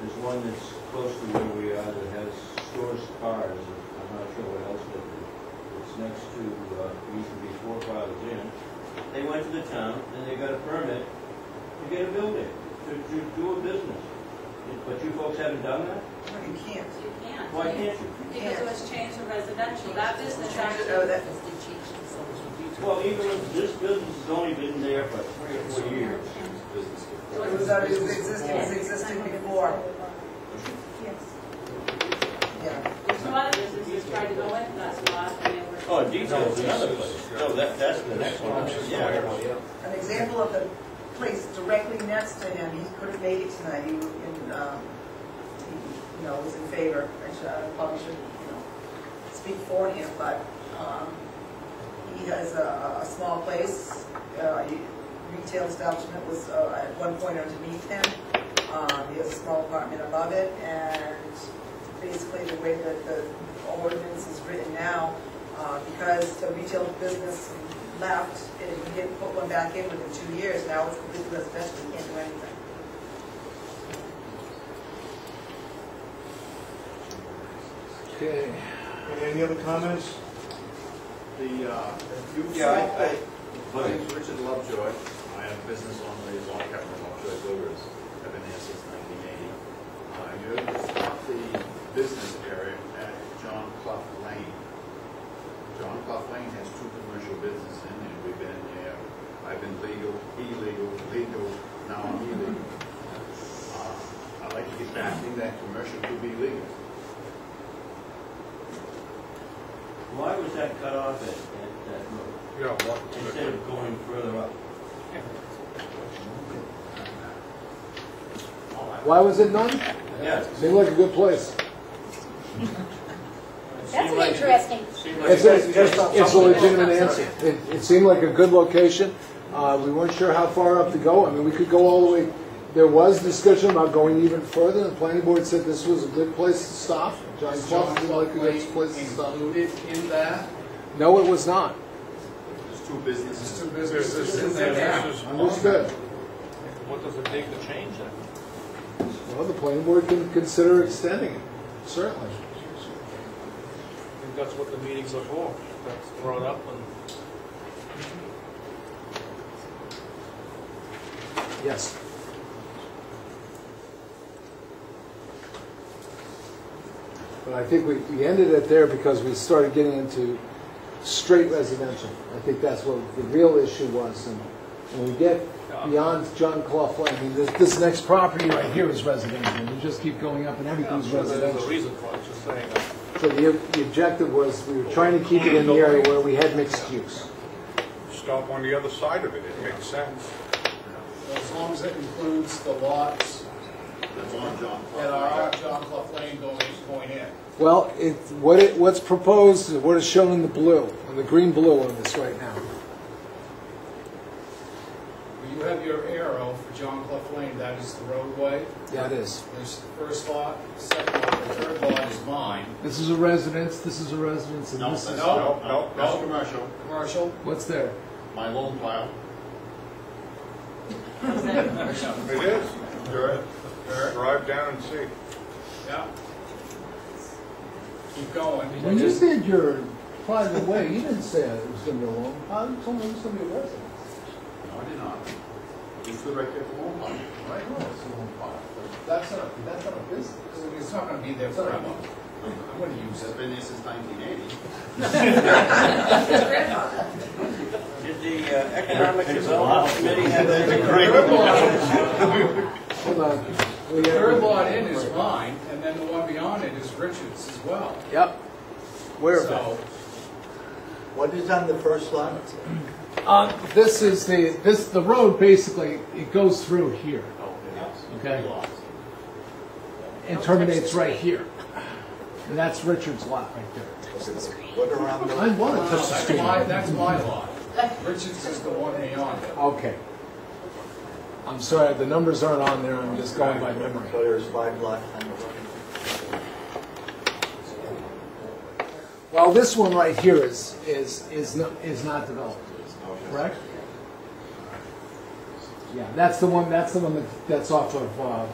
There's one that's close to where we are that has stores cars, I'm not sure what else, but it's next to, uh, used to be forefathers inn. They went to the town and they got a permit to get a building, to, to do a business. But you folks haven't done that? No, you can't. You can't. Why can't you? Because it was changed to residential, that business actually. Oh, that- Well, even if this business has only been there for three or four years. It was already existing, it was existing before, yeah. There's a lot of businesses tried to go into that spot and they were. Oh, details another place. No, that, that's the next one. Yeah. An example of the place directly next to him, he could have made it tonight, he, was in, um, he, you know, was in favor. I should, I probably should, you know, speak for him, but, um, he has a, a small place, uh, he- retail establishment was, uh, at one point underneath him. Um, he has a small apartment above it, and basically the way that the ordinance is written now, uh, because the retail business left, and we didn't put one back in within two years, now it's completely residential, we can't do anything. Okay, any other comments? The, uh, Yeah, I, I, my Please. name's Richard Lovejoy. I have a business on the lawn cabinet, Lovejoy Builders. I've been here since nineteen eighty. Uh, I moved up the business area at John Clough Lane. John Clough Lane has two commercial businesses in there. We've been there, I've been legal, illegal, legal, now I'm illegal. Uh, I'd like to get back in that commercial to be legal. Why was that cut off at, at that road? Instead of going further up? Why was it none? Yes. Seemed like a good place. That's an interesting, It's, a- it's it's a legitimate answer. It, it seemed like a good location. Uh, we weren't sure how far up to go. I mean, we could go all the way. There was discussion about going even further. The planning board said this was a good place to stop. John Clough seemed like a good place to stop. Included in that? No, it was not. There's two businesses. Two businesses in there, this is- Understood. What does it take to change that? Well, the planning board can consider extending it, certainly. I think that's what the meetings are for, that's brought up and. Yes. But I think we, we ended it there because we started getting into straight residential. I think that's what the real issue was, and when we get beyond John Clough Lane, I mean, this, this next property right here is residential, and you just keep going up and everything's I'm sure There's a residential. reason for it, just saying. uh, So the, the objective was, we were trying to keep it in the area where we had mixed use. stop on the other side of it, it makes sense. As long as it includes the lots That's on John Clough. that are on John Clough Lane going, going in. Well, it, what it, what's proposed, is what is shown in the blue, on the green blue on this right now. Well, You have your arrow for John Clough Lane, that is the roadway, Yeah, it is. there's the first lot, the second lot, the third lot is mine, This is a residence, this is a residence, and No, this that's, is, no, no, that's no. commercial. commercial, what's there? My loan pile, It is. dirt, dirt, Drive down and see. yeah. Keep going. When you said your private way, you didn't say it was gonna be a long, how you told me it was gonna be a residence? no, I did not. You stood right there for loan pile. Right, no, it's a little far. That's not, that's not a business, it's not gonna be there forever. I'm gonna use It's it. been there since nineteen eighty. Did the uh, Economic Development Committee have anything? Third lot- Hold on. The third lot in is mine, and then the one beyond it is Richard's as well. Yep. So, What is on the first line? Uh, this is the, this, the road basically, it goes through here Okay. and terminates right here. And that's Richard's lot right there. What around the, I wanna touch the That's screen. my, that's my lot. Richards is the one beyond it. Okay. I'm sorry, the numbers aren't on there, I'm just going by memory. so there's five lot on the right? Well, this one right here is, is, is not, is not developed, correct? Yeah, that's the one, that's the one that, that's off of, uh,